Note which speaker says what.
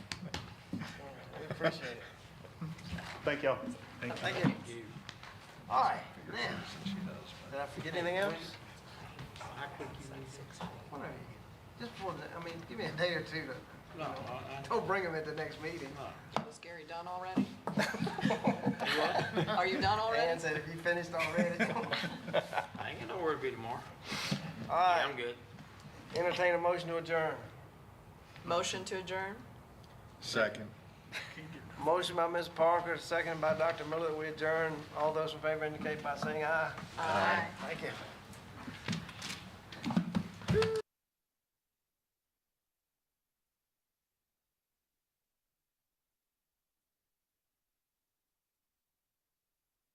Speaker 1: Appreciate it.
Speaker 2: Thank y'all.
Speaker 1: Thank you. All right, then, did I forget anything else? Whatever. Just for the, I mean, give me a day or two to,
Speaker 3: No, I,
Speaker 1: don't bring them at the next meeting.
Speaker 4: Was Gary done already? Are you done
Speaker 1: Dan
Speaker 4: already?
Speaker 1: said if you finished already.
Speaker 3: I, I ain't gonna worry about it tomorrow.
Speaker 1: All
Speaker 3: I'm
Speaker 1: right,
Speaker 3: good.
Speaker 1: entertain a motion to adjourn.
Speaker 4: Motion to adjourn?
Speaker 5: Second.
Speaker 1: Motion by Ms. Parker, seconded by Dr. Miller, that we adjourn. All those in favor indicate by saying aye.
Speaker 4: Aye.
Speaker 1: Thank you.